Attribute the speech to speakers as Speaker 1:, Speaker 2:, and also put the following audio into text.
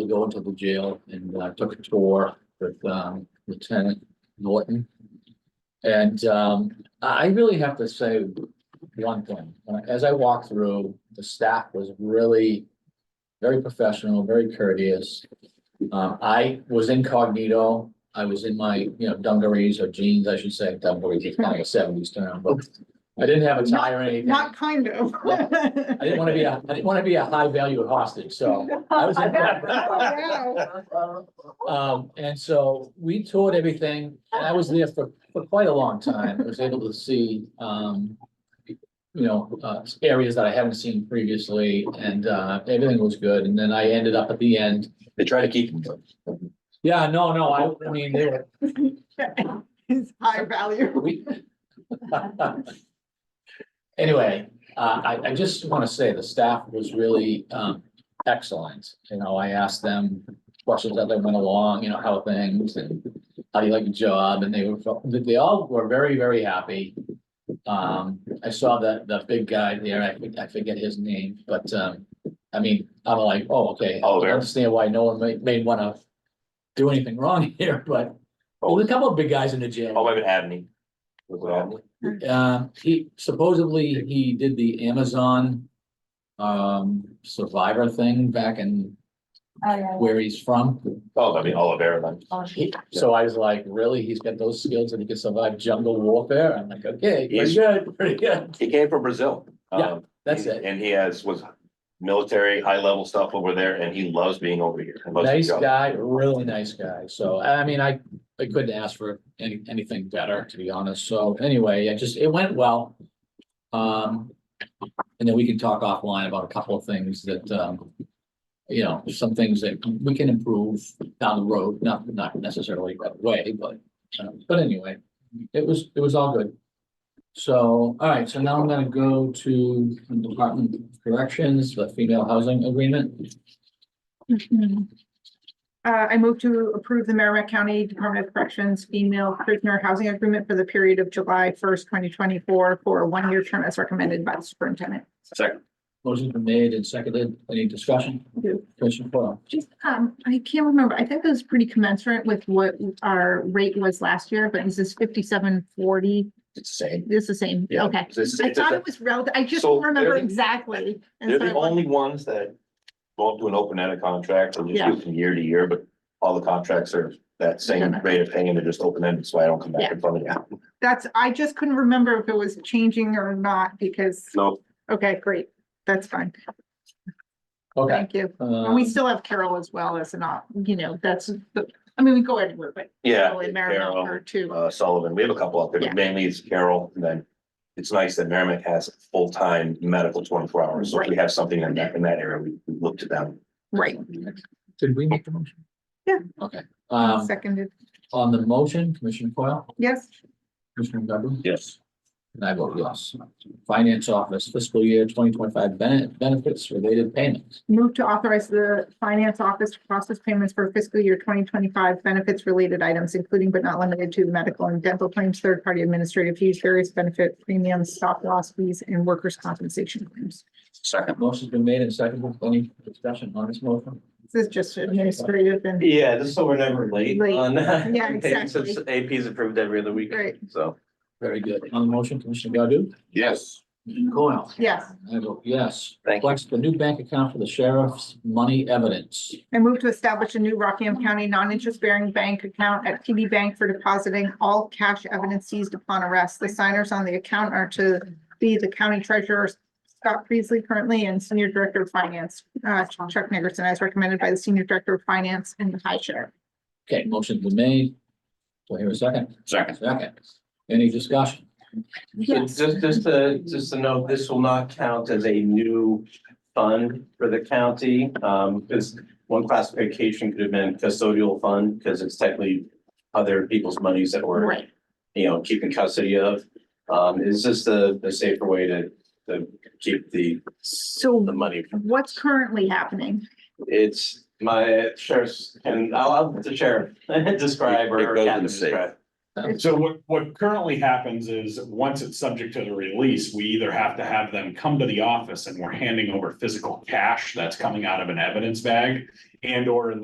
Speaker 1: to go into the jail and uh, took a tour with um, Lieutenant Norton. And um, I I really have to say one thing. Uh, As I walked through, the staff was really very professional, very courteous. Um, I was incognito. I was in my, you know, dungarees or jeans, I should say, dungarees is kind of a seventies term, but I didn't have a tie or anything.
Speaker 2: Not kind of.
Speaker 1: I didn't want to be a, I didn't want to be a high value hostage, so. I was
Speaker 2: Wow.
Speaker 1: Um, and so we toured everything, and I was there for, for quite a long time, I was able to see, um. You know, uh, areas that I haven't seen previously, and, uh, everything was good, and then I ended up at the end.
Speaker 3: They try to keep them.
Speaker 1: Yeah, no, no, I, I mean, they were,
Speaker 2: It's high value.
Speaker 1: we. Anyway, uh, I, I just want to say the staff was really, um, excellent. You know, I asked them questions as they went along, you know, how are things and how do you like your job? And they were, they all were very, very happy. Um, I saw that, the big guy there, I, think- I forget his name, but, um, I mean, I'm like, oh, okay. I
Speaker 3: Oliver.
Speaker 1: Understand why no one may, may want to do anything wrong here, but, oh, there's a couple of big guys in the jail.
Speaker 3: Oh, maybe Abney. Was it Abney?
Speaker 1: Uh, he supposedly he did the Amazon. Um, survivor thing back in
Speaker 4: Oh, yeah.
Speaker 1: where he's from.
Speaker 3: Oh, I mean, Olivera then.
Speaker 4: Oh,
Speaker 1: He- So I was like, really? He's got those skills and he can survive jungle warfare? I'm like, okay, pretty good, pretty good.
Speaker 3: He came from Brazil.
Speaker 1: Yeah,
Speaker 3: Um,
Speaker 1: That's
Speaker 3: he-
Speaker 1: it.
Speaker 3: And he has, was military, high level stuff over there and he loves being over here. He loves
Speaker 1: Nice
Speaker 3: his job.
Speaker 1: guy, really nice guy. So, I mean, I, I couldn't ask for any, anything better, to be honest. So anyway, it just, it went well. Um, and then we can talk offline about a couple of things that, um, you know, some things that we can improve down the road, not, not necessarily right away, but, um, but anyway, it was, it was all good. So, all right, so now I'm gonna go to Department of Corrections, the female housing agreement.
Speaker 2: Uh, I move to approve the Merrimack County Department of Corrections female prisoner housing agreement for the period of July first, twenty twenty-four for a one-year term as recommended by the superintendent.
Speaker 3: Second,
Speaker 1: Motion's been made and seconded. Any discussion?
Speaker 2: Yeah.
Speaker 1: Commissioner Foil,
Speaker 2: Just, um, I can't remember. I think it was pretty commensurate with what our rate was last year, but this is fifty-seven forty.
Speaker 3: it's the same.
Speaker 2: This is the same,
Speaker 3: Yeah,
Speaker 2: okay.
Speaker 3: It's the same-
Speaker 2: I
Speaker 3: it's the
Speaker 2: thought
Speaker 3: same.
Speaker 2: it was relative. I just
Speaker 3: So
Speaker 2: don't remember
Speaker 3: they're the-
Speaker 2: exactly. and
Speaker 3: They're
Speaker 2: so I
Speaker 3: the
Speaker 2: wanted-
Speaker 3: only ones that won't do an open ended contract or just do it from year to year, but all the contracts are that same
Speaker 2: Yeah.
Speaker 3: rate of paying. They're just open ended, so I don't come back in front of you.
Speaker 2: That's, I just couldn't remember if it was changing or not because,
Speaker 3: No,
Speaker 2: okay, great. That's fine.
Speaker 1: Okay.
Speaker 2: Thank you. And
Speaker 1: um,
Speaker 2: we still have Carol as well as an op, you know, that's, the I mean, we go anywhere, but
Speaker 3: yeah.
Speaker 2: Carol and
Speaker 3: Carol.
Speaker 2: Marymount are two.
Speaker 3: uh, Sullivan. We have a couple up there,
Speaker 2: Yeah.
Speaker 3: but mainly it's Carroll. And then it's nice that Merrimack has full-time medical twenty-four hours. So if we have something in that, in that area, we we look to them.
Speaker 2: Right,
Speaker 1: Did we make the motion?
Speaker 2: Yeah.
Speaker 1: Okay, um,
Speaker 2: seconded,
Speaker 1: on the motion, Commissioner Foil,
Speaker 2: yes.
Speaker 1: Commissioner Godu?
Speaker 3: Yes.
Speaker 1: And I vote yes. Finance Office fiscal year twenty twenty-five benefits related payments.
Speaker 2: Move to authorize the finance office to process payments for fiscal year twenty twenty-five benefits related items, including but not limited to medical and dental claims, third-party administrative fees, various benefit premiums, stop loss fees, and workers' compensation claims.
Speaker 3: Second.
Speaker 1: Motion's been made and seconded. Any discussion on this motion?
Speaker 2: This is just administrative and,
Speaker 5: Yeah, just so we're never late
Speaker 2: Late.
Speaker 5: on. uh,
Speaker 2: Yeah,
Speaker 5: things, since AP's approved every other week,
Speaker 2: right,
Speaker 5: so.
Speaker 1: Very good. On the motion, Commissioner Godu?
Speaker 3: Yes.
Speaker 1: Commissioner Coyle?
Speaker 2: yes.
Speaker 1: I vote yes.
Speaker 5: Thank you.
Speaker 1: Flex the new bank account for the sheriff's money evidence.
Speaker 2: I move to establish a new Rockingham County non-interest-bearing bank account at TD Bank for depositing all cash evidence seized upon arrest. The signers on the account are to be the county treasurer, Scott Priestley currently, and Senior Director of Finance, uh, Chuck Nickerson, as recommended by the Senior Director of Finance and the High Sheriff.
Speaker 1: Okay, motion's been made. Do I hear a second?
Speaker 3: Second.
Speaker 1: Second. Any discussion?
Speaker 5: So Just, just to, just to note, this will not count as a new fund for the county, um, because one classification could have been custodial fund, because it's technically other people's monies that were, you know, keeping custody of. Um, is this the, the safer way to, to keep the,
Speaker 2: So
Speaker 5: the money
Speaker 2: what's currently happening?
Speaker 5: It's my sheriff's, and I'll, I'll let the sheriff describe
Speaker 3: It- it
Speaker 5: or
Speaker 3: goes in
Speaker 5: Captain
Speaker 3: the safe.
Speaker 5: describe.
Speaker 4: So what, what currently happens is, once it's subject to the release, we either have to have them come to the office and we're handing over physical cash that's coming out of an evidence bag. And or in